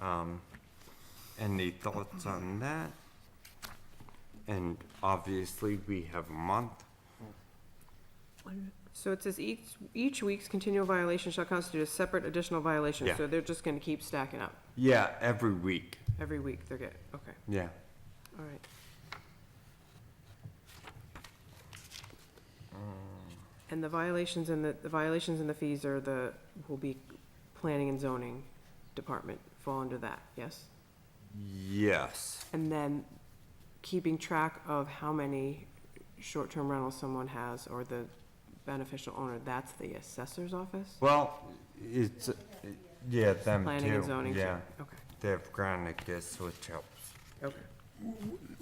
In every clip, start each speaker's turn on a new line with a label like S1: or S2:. S1: Um, any thoughts on that? And obviously, we have a month.
S2: So it says each, each week's continual violation shall constitute a separate additional violation,
S1: Yeah.
S2: so they're just gonna keep stacking up.
S1: Yeah, every week.
S2: Every week they're getting, okay,
S1: Yeah.
S2: all right. And the violations and the, the violations and the fees are the, will be planning and zoning department fall under that, yes?
S1: Yes.
S2: And then keeping track of how many short-term rentals someone has or the beneficial owner, that's the assessor's office?
S1: Well, it's, yeah, them too.
S2: Planning and zoning? too?
S1: Mm, Yeah,
S2: Okay,
S1: they have Granicus, which helps.
S2: okay.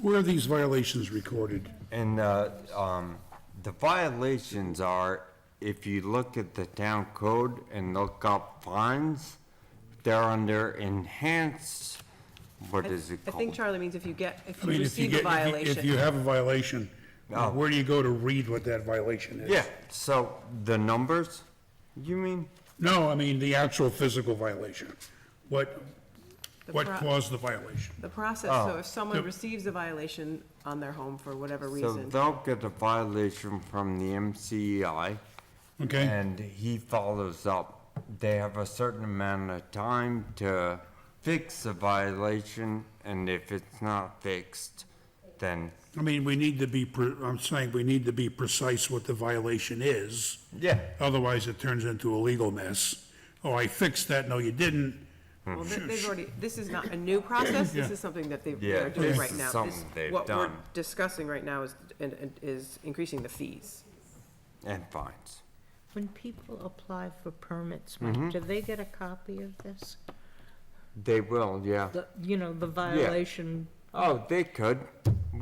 S3: Where are these violations recorded?
S1: And, uh, um, the violations are, if you look at the town code and look up fines, they're under enhanced, what is it
S2: I think
S1: called?
S2: Charlie means if you get, if
S3: I
S2: you
S3: mean, if you
S2: receive a
S3: get, if you- if you
S2: violation.
S3: have a violation,
S1: Oh.
S3: where do you go to read what that violation is?
S1: Yeah, so the numbers, you mean?
S3: No, I mean, the actual physical violation. What,
S2: The
S3: what
S2: pro-
S3: caused the violation?
S2: The process, so
S1: Oh.
S2: if someone receives a violation on their home for whatever
S1: So
S2: reason,
S1: they'll get a violation from the MCEI.
S3: Okay.
S1: And he follows up. They have a certain amount of time to fix the violation, and if it's not fixed, then,
S3: I mean, we need to be, pre- I'm saying, we need to be precise what the violation is.
S1: yeah,
S3: Otherwise, it turns into a legal mess. Oh, I fixed that, no, you didn't.
S1: Hmm.
S2: well, th- they've already, this is not a new process, this
S3: Yeah.
S2: is something that they
S1: Yeah,
S2: are doing
S1: this
S2: right
S1: is
S2: now. This-
S1: something they've
S2: What we're
S1: done.
S2: discussing right now is, and- and is increasing the fees.
S1: and fines.
S4: When people apply for permits,
S1: Mm-hmm.
S4: Mike, do they get a copy of this?
S1: They will, yeah.
S4: The, you know, the violation,
S1: Oh, they could.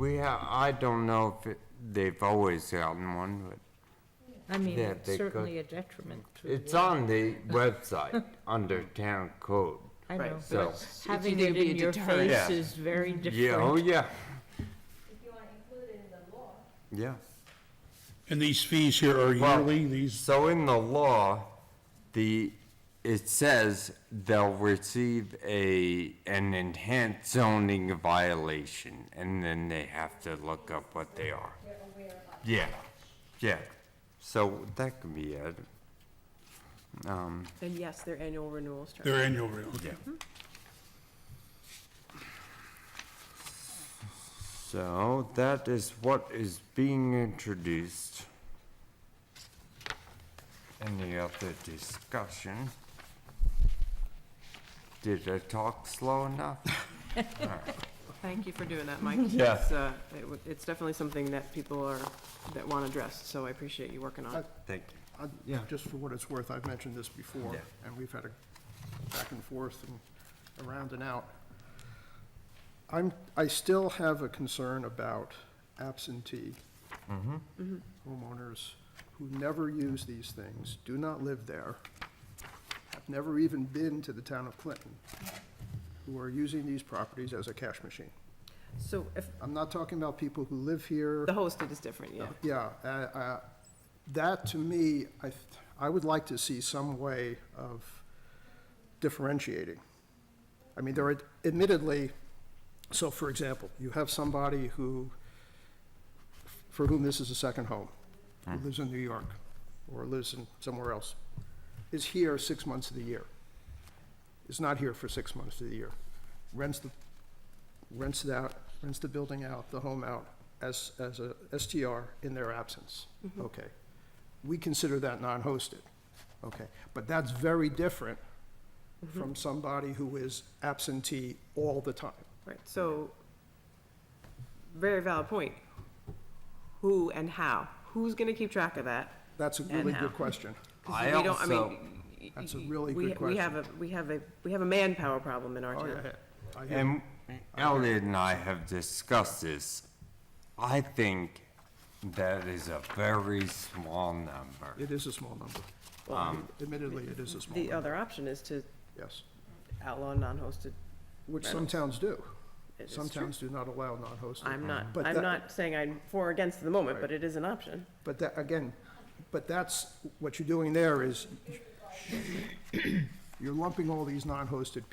S1: We have, I don't know if it, they've always gotten one, but
S4: I mean,
S1: Yeah,
S4: it's
S1: they could.
S4: certainly a detriment to.
S1: it's
S4: the-
S1: on the website under town code.
S4: I
S2: Right,
S4: know,
S1: so-
S4: but having
S2: either
S4: it
S2: be a
S4: in your
S2: deterrent.
S1: Yeah.
S4: face is very
S1: Yeah, oh,
S4: different.
S1: yeah,
S5: if you want to include it in the law,
S1: yeah.
S3: And these fees here are
S1: Well,
S3: yearly, these,
S1: So in the law, the, it says they'll receive a, an enhanced zoning violation, and then they have to look up what they are. Yeah, yeah, so that could be it. Um,
S2: And yes, their annual renewals, Charlie.
S3: they're annual, okay.
S1: so that is what is being introduced. Any other discussion? Did I talk slow enough?
S2: Thank you for doing that, Mike.
S1: Yeah.
S2: It's, uh, it w- It's definitely something that people are, that want addressed, so I appreciate you working on it.
S1: Thank you.
S6: I- Just for what it's worth, I've mentioned this before,
S1: Yeah.
S6: and we've had a back and forth and around and out. I'm, I still have a concern about absentee homeowners who never use these things, do not live there, have never even been to the town of Clinton, who are using these properties as a cash machine.
S2: So if,
S6: I'm not talking about people who live here.
S2: the hosted is different, yeah.
S6: Yeah, uh, uh, that to me, I, th- I would like to see some way of differentiating. I mean, there are admittedly, so for example, you have somebody who, for whom this is a second home, who lives in New York or lives in somewhere else, is here six months of the year, is not here for six months of the year, rents the rents it out, rents the building out, the home out, as, as a STR in their absence.
S2: Mm-hmm.
S6: Okay. We consider that non-hosted. Okay. But that's very different
S2: Mm-hmm.
S6: from somebody who is absentee all the time.
S2: Right, so, very valid point. Who and how? Who's gonna keep track of that?
S6: That's a
S2: And
S6: really
S2: how.
S6: good question.
S2: 'Cause
S1: I
S2: we don't- I mean,
S1: also-
S2: y-
S6: That's a
S2: y-
S6: really
S2: we-
S6: good
S2: We have a, we have a, we have a manpower problem in our
S6: Oh,
S2: town.
S6: yeah. I hear-
S1: And Elliot and I have discussed this. I think that is a very small number.
S6: It is a small number. Admittedly, it is a small
S2: The
S6: number,
S2: other option is to
S6: yes.
S2: outlaw non-hosted.
S6: Which some towns do.
S2: It is
S6: Some
S2: true.
S6: towns do not allow non-hosted.
S2: I'm not,
S6: But
S2: I'm
S6: that-
S2: not saying I'm for or against at the moment, but it is an option.
S6: But that, again, but that's, what you're doing there is, you're lumping all these non-hosted